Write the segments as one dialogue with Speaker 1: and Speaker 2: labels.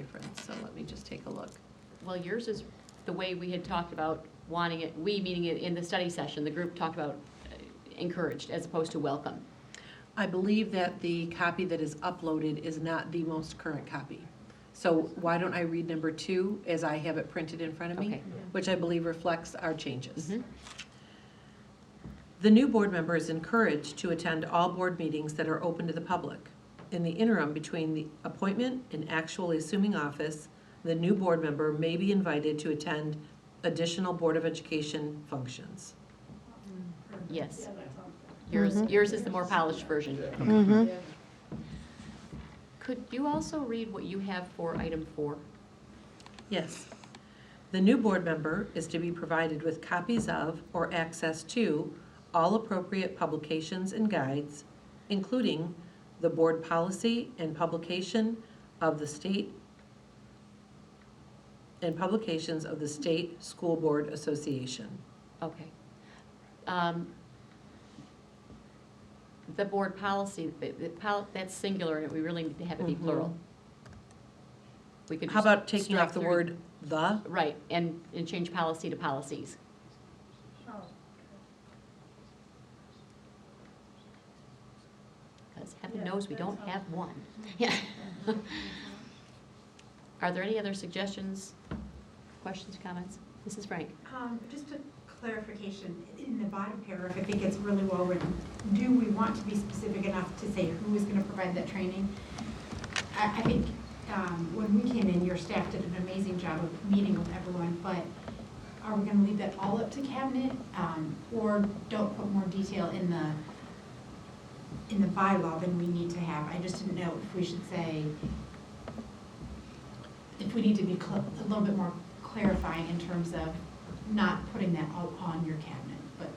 Speaker 1: difference, so let me just take a look. Well, yours is the way we had talked about wanting it, we meaning it in the study session, the group talked about uh, encouraged as opposed to welcome.
Speaker 2: I believe that the copy that is uploaded is not the most current copy. So why don't I read number two as I have it printed in front of me,
Speaker 1: Okay.
Speaker 2: which I believe reflects our changes.
Speaker 1: Mhm.
Speaker 2: The new board member is encouraged to attend all board meetings that are open to the public. In the interim between the appointment and actually assuming office, the new board member may be invited to attend additional Board of Education functions.
Speaker 1: Yes.
Speaker 2: Mm-hmm.
Speaker 1: Yours, yours is the more polished version. Could you also read what you have for item four?
Speaker 2: Yes. The new board member is to be provided with copies of or access to all appropriate publications and guides, including the board policy and publication of the state and publications of the State School Board Association.
Speaker 1: Okay. Um, The board policy, the- the pol- that's singular, and we really need to have it be plural. We could
Speaker 2: Mm-hmm. How
Speaker 1: just
Speaker 2: about taking
Speaker 1: strike
Speaker 2: off the
Speaker 1: through-
Speaker 2: word "the"?
Speaker 1: Right, and, and change policy to policies. Because heaven
Speaker 3: Yeah,
Speaker 1: knows we
Speaker 3: that's
Speaker 1: don't
Speaker 3: all.
Speaker 1: have one. Yeah. Are there any other suggestions, questions, comments? Mrs. Frank?
Speaker 4: Um, Just a clarification, in the bottom paragraph, I think it's really well written. Do we want to be specific enough to say who is going to provide that training? I, I think um, when we came in, your staff did an amazing job of meeting with everyone, but are we going to leave that all up to cabinet? Um, Or don't put more detail in the, in the bylaw than we need to have? I just didn't know if we should say, if we need to be cl- a little bit more clarifying in terms of not putting that all on your cabinet, but.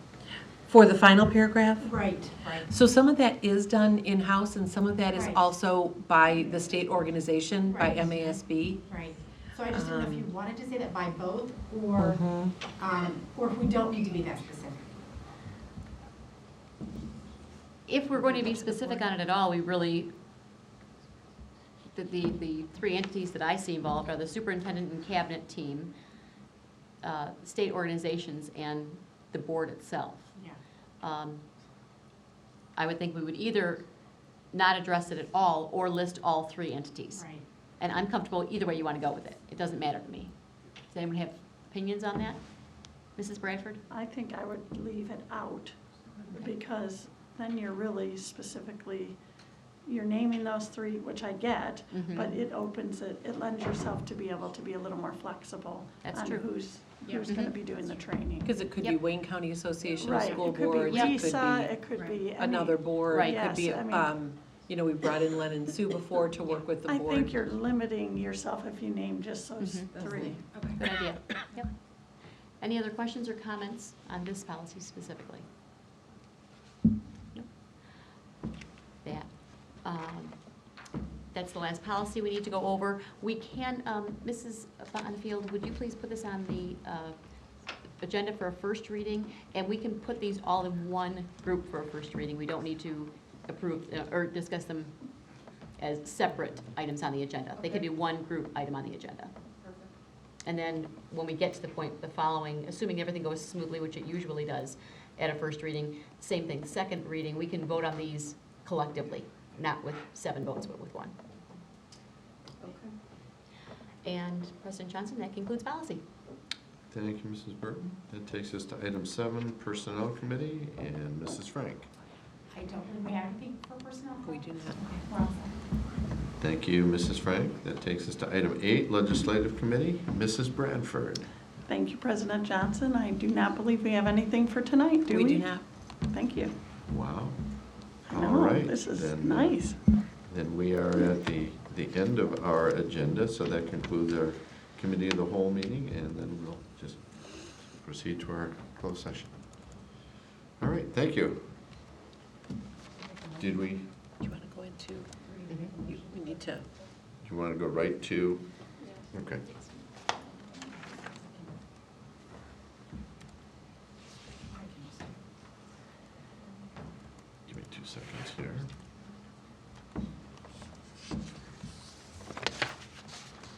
Speaker 2: For the final paragraph?
Speaker 4: Right, right.
Speaker 2: So some of that is done in-house, and some of that is
Speaker 4: Right.
Speaker 2: also by the state organization, by
Speaker 4: Right.
Speaker 2: MASB.
Speaker 4: Right. So I just didn't know if you
Speaker 2: Um, Mm-hmm.
Speaker 4: wanted to say that by both, or, um, or if we don't need to be that specific.
Speaker 1: If we're going to be specific on it at all, we really, the, the, the three entities that I see involved are the superintendent and cabinet team, uh, state organizations, and the board itself.
Speaker 4: Yeah.
Speaker 1: Um, I would think we would either not address it at all, or list all three entities.
Speaker 4: Right.
Speaker 1: And I'm comfortable either way you want to go with it. It doesn't matter to me. Does anyone have opinions on that? Mrs. Bradford?
Speaker 3: I think I would leave it out, because then you're really specifically, you're naming those three, which I get,
Speaker 1: Mhm.
Speaker 3: but it opens it, it lends yourself to be able to be a little more flexible
Speaker 1: That's true.
Speaker 3: on who's,
Speaker 4: Yeah.
Speaker 3: who's gonna
Speaker 1: Mhm.
Speaker 3: be doing the training.
Speaker 2: Because it could be
Speaker 1: Yep.
Speaker 2: Wayne County Association of
Speaker 3: Right,
Speaker 2: School
Speaker 3: it could be
Speaker 2: Boards, it
Speaker 3: Lisa,
Speaker 2: could
Speaker 3: it could
Speaker 4: Right.
Speaker 3: be
Speaker 2: be
Speaker 3: any-
Speaker 2: another board, it
Speaker 3: Right.
Speaker 2: could be,
Speaker 3: Yes, I mean-
Speaker 2: um, you know, we brought in Len and Sue before to work with the
Speaker 3: I
Speaker 2: board. Mm-hmm.
Speaker 3: think you're limiting yourself if you name just those
Speaker 1: Mhm.
Speaker 3: three.
Speaker 1: Good idea. Yep. Any other questions or comments on this policy specifically? No. That, um, that's the last policy we need to go over. We can, um, Mrs. Bonnefield, would you please put this on the uh, agenda for a first reading? And we can put these all in one group for a first reading. We don't need to approve uh, or discuss them as separate items on the agenda. They could be one group item on the agenda. And then when we get to the point, the following, assuming everything goes smoothly, which it usually does at a first reading, same thing, second reading, we can vote on these collectively, not with seven votes, but with one. And President Johnson, that concludes policy.
Speaker 5: Thank you, Mrs. Burton. That takes us to item seven, Personnel Committee, and Mrs. Frank.
Speaker 4: I don't believe we have anything for personnel.
Speaker 2: We do not.
Speaker 4: We're all set.
Speaker 5: Thank you, Mrs. Frank. That takes us to item eight, Legislative Committee, Mrs. Bradford.
Speaker 3: Thank you, President Johnson. I do not believe we have anything for tonight, do we?
Speaker 2: do not.
Speaker 3: Thank you.
Speaker 5: Wow.
Speaker 3: I
Speaker 5: All
Speaker 3: know,
Speaker 5: right.
Speaker 3: This is
Speaker 5: then-
Speaker 3: nice.
Speaker 5: Then we are at the, the end of our agenda, so that concludes our Committee of the Whole meeting, and then we'll just proceed to our closed session. All right, thank you. Did we,
Speaker 2: Do you want to
Speaker 3: Mm-hmm.
Speaker 2: go into, you- we need to,
Speaker 5: you want to go right to? Okay.